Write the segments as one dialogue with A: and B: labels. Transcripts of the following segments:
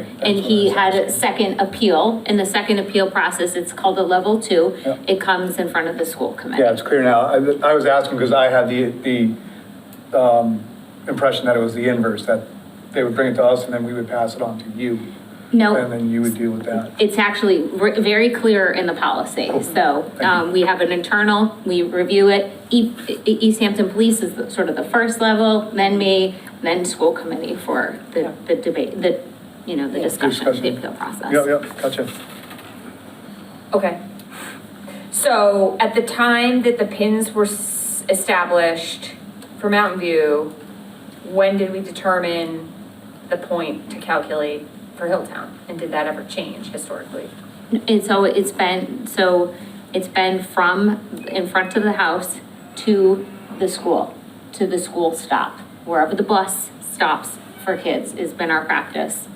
A: And he had a second appeal. In the second appeal process, it's called a level two.
B: Yeah.
A: It comes in front of the school
B: Yeah,
A: committee.
B: it's clear now. I, I was asking because I had the, the, um, impression that it was the inverse, that they would bring it to us and then we would pass it on to you. And
A: No,
B: then you would deal with that.
A: it's actually re- very clear in the policy. So
B: Thank you.
A: um, we have an internal, we review it. E- E- East Hampton Police is the- sort of the first level, then me, then school committee for the the debate, the, you know, the discussion, the
B: discussion.
A: appeal process.
B: Yep, yep, gotcha.
C: Okay. So at the time that the pins were s- established for Mountain View, when did we determine the point to calculate for Hilltown? And did that ever change historically?
A: And so it's been, so it's been from in front of the house to the school, to the school stop. Wherever the bus stops for kids has been our practice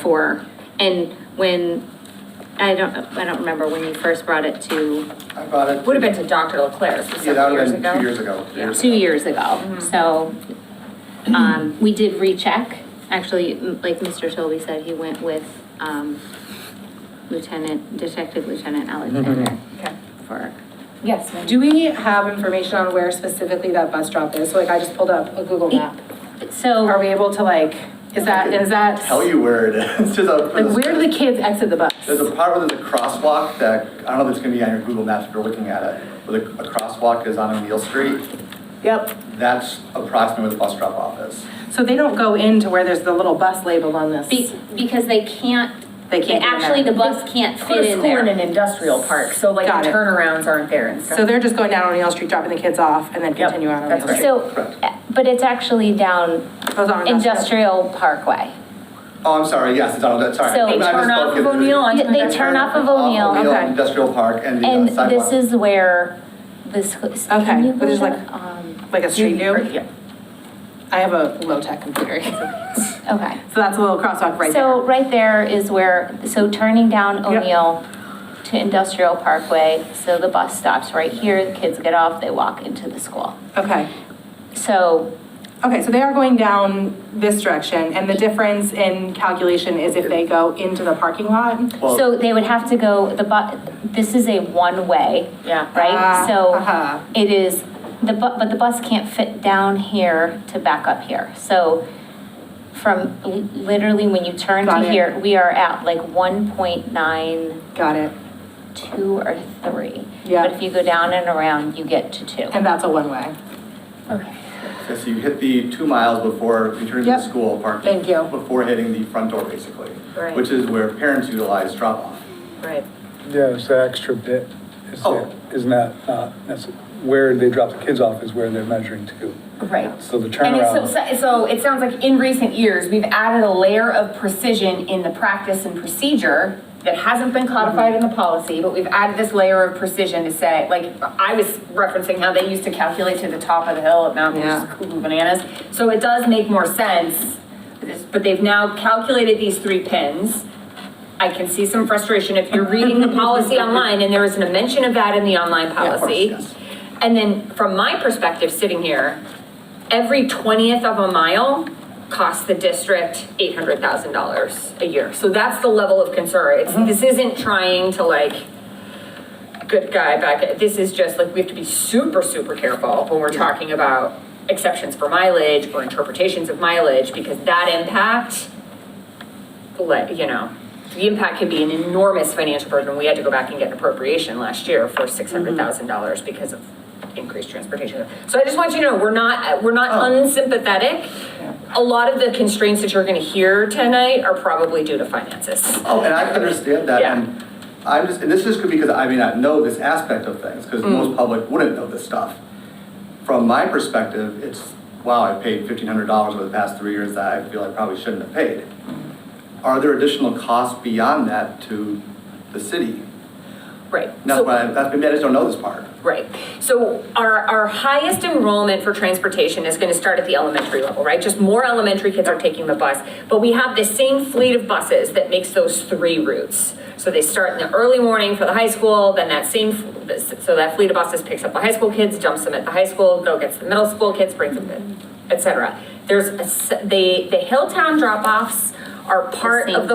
A: for, and when, I don't, I don't remember when you first brought it to
D: I bought it.
C: Would have been to Dr. LeClaire, so
D: Yeah, that
C: several
D: would
C: years
D: have been two years
C: ago.
D: ago.
C: Yeah.
A: two years ago. So, um, we did recheck. Actually, m- like Mr. Tobey said, he went with, um, Lieutenant, Detective Lieutenant Alexander
C: Okay.
A: for
E: Yes, ma'am. Do we have information on where specifically that bus drop is? So like, I just pulled up a Google map.
A: So.
E: Are we able to like, is that, is that?
D: Tell you where it is, just out for
E: Like, where do the
D: the.
E: kids exit the bus?
D: There's a part where there's a crosswalk that, I don't know if it's gonna be on your Google Maps if you're looking at it, where the, a crosswalk is on O'Neill Street.
E: Yep.
D: That's approximately where the bus drop off is.
E: So they don't go into where there's the little bus labeled on this?
A: Be- Because they can't.
E: They can't get in
A: Actually, the
E: there.
A: bus can't fit in
C: School in an
A: there.
C: industrial park, so like
E: Got
C: the
E: it.
C: turnarounds aren't there and stuff.
E: So they're just going down O'neill Street, dropping the kids off and then
C: Yep,
E: continue on
C: that's
E: O'neill
C: right.
E: Street?
F: So, uh, but it's actually down
E: Goes on industrial.
F: Industrial Parkway.
D: Oh, I'm sorry, yes, it's on, that's, sorry.
F: So-
D: I
F: They
C: turn off
D: misspoke it.
C: of O'Neill onto
D: They
F: They turn off of
D: off
F: O'Neill,
E: Okay.
D: Industrial Park and the uh,
F: and
D: sidewalk.
F: this is where this, can
E: Okay,
F: you
E: but
F: go
E: there's
F: to,
E: like-
F: um,
E: Like a street view?
C: Yeah.
E: I have a low-tech computer. So
F: okay.
E: that's a little crosswalk right
F: So
E: there.
F: right there is where, so turning down
E: Yep.
F: O'Neill to Industrial Parkway, so the bus stops right here, the kids get off, they walk into the school.
E: Okay.
F: So,
E: Okay, so they are going down this direction and the difference in calculation is if they go into the parking lot?
D: Well-
F: so they would have to go, the bu, this is a one-way.
C: Yeah.
F: Right?
E: Ah,
F: So
E: uh-huh.
F: it is, the bu, but the bus can't fit down here to back up here. So from li- literally when you turn
E: Got
F: to
E: it.
F: here, we are at like one point nine,
E: Got it.
F: two or three.
E: Yeah.
F: But if you go down and around, you get to two.
E: And that's a one-way.
F: Okay.
D: Yes, you hit the two miles before returning to the
E: Yep.
D: school parking.
E: Thank you.
D: Before hitting the front door, basically.
C: Right.
D: Which is where parents utilize drop-off.
C: Right.
B: Yeah, it's that extra bit. Is
D: Oh.
B: that, isn't that, uh, that's where they drop the kids off is where they're measuring to.
F: Right.
B: So the
C: And it's
B: turnaround.
C: so, so it sounds like in recent years, we've added a layer of precision in the practice and procedure that hasn't been codified
B: Mm-hmm.
C: in the policy, but we've added this layer of precision to say, like, I was referencing how they used to calculate to the top of the hill at Mountain View, which is
E: Yeah.
C: cuckoo bananas. So it does make more sense, it's- but they've now calculated these three pins. I can see some frustration if you're reading the policy online, and there isn't a mention of that in the online
D: of course,
C: policy.
D: yes.
C: And then from my perspective, sitting here, every twentieth of a mile costs the district eight hundred thousand dollars a year. So that's the level of concern. It's,
D: Uh-huh.
C: this isn't trying to like, good guy back, this is just like, we have to be super, super careful when we're talking about exceptions for mileage or interpretations of mileage, because that impact, like, you know, the impact could be an enormous financial burden. We had to go back and get an appropriation last year for six hundred thousand dollars because of increased transportation. So I just want you to know, we're not, we're not unsympathetic. A lot of the constraints that you're gonna hear tonight are probably due to finances.
D: Oh, and I can understand that,
C: Yeah.
D: and I'm just, and this is because I may not know this aspect of things,
C: Mm.
D: because most public wouldn't know this stuff. From my perspective, it's, wow, I paid fifteen hundred dollars over the past three years that I feel I probably shouldn't have paid. Are there additional costs beyond that to the city?
C: Right.
D: That's
C: So-
D: why, I- that's, maybe I just don't know this part.
C: Right. So our, our highest enrollment for transportation is going to start at the elementary level, right? Just more elementary kids are taking the bus. But we have the same fleet of buses that makes those three routes. So they start in the early morning for the high school, then that same, so that fleet of buses picks up the high school kids, dumps them at the high school, go gets the middle school kids, brings them, in, et cetera. There's, a s- the, the Hilltown drop-offs are part
A: same
C: of the